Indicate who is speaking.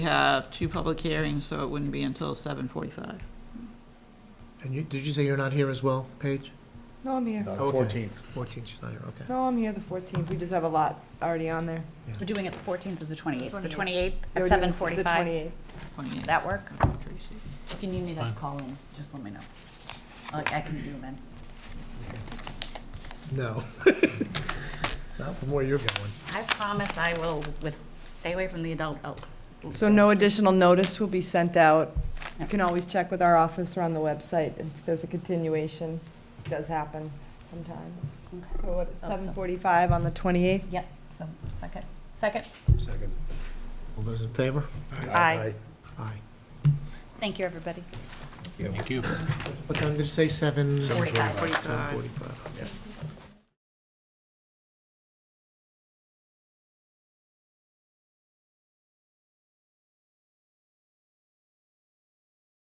Speaker 1: have two public hearings, so it wouldn't be until seven forty-five.
Speaker 2: And you, did you say you're not here as well, Paige?
Speaker 3: No, I'm here.
Speaker 2: Okay.
Speaker 4: Fourteenth.
Speaker 2: 14th, she's not here, okay.
Speaker 3: No, I'm here the 14th. We just have a lot already on there.
Speaker 5: We're doing it the 14th or the 28th? The 28th
Speaker 3: They
Speaker 5: at
Speaker 3: were doing
Speaker 5: 7:45?
Speaker 3: The 28th.
Speaker 1: Twenty-eight.
Speaker 5: That work?
Speaker 1: Tracy.
Speaker 5: If you need me to call in, just let me know. I I can zoom in.
Speaker 2: No. Not from where you're going.
Speaker 5: I promise I will with, stay away from the adult. out-
Speaker 3: So no additional notice will be sent out. You can always check with our office or on the website if there's a continuation. It does happen sometimes. So what, it's
Speaker 5: Oh, so-
Speaker 3: 7:45 on the 28th?
Speaker 5: Yep, so second, second.
Speaker 4: Second.
Speaker 2: All those in favor?
Speaker 3: Aye.
Speaker 2: Aye.
Speaker 5: Thank you, everybody.
Speaker 4: Thank you.
Speaker 2: What time did you say, seven?
Speaker 5: Forty-five.
Speaker 2: Seven forty-five.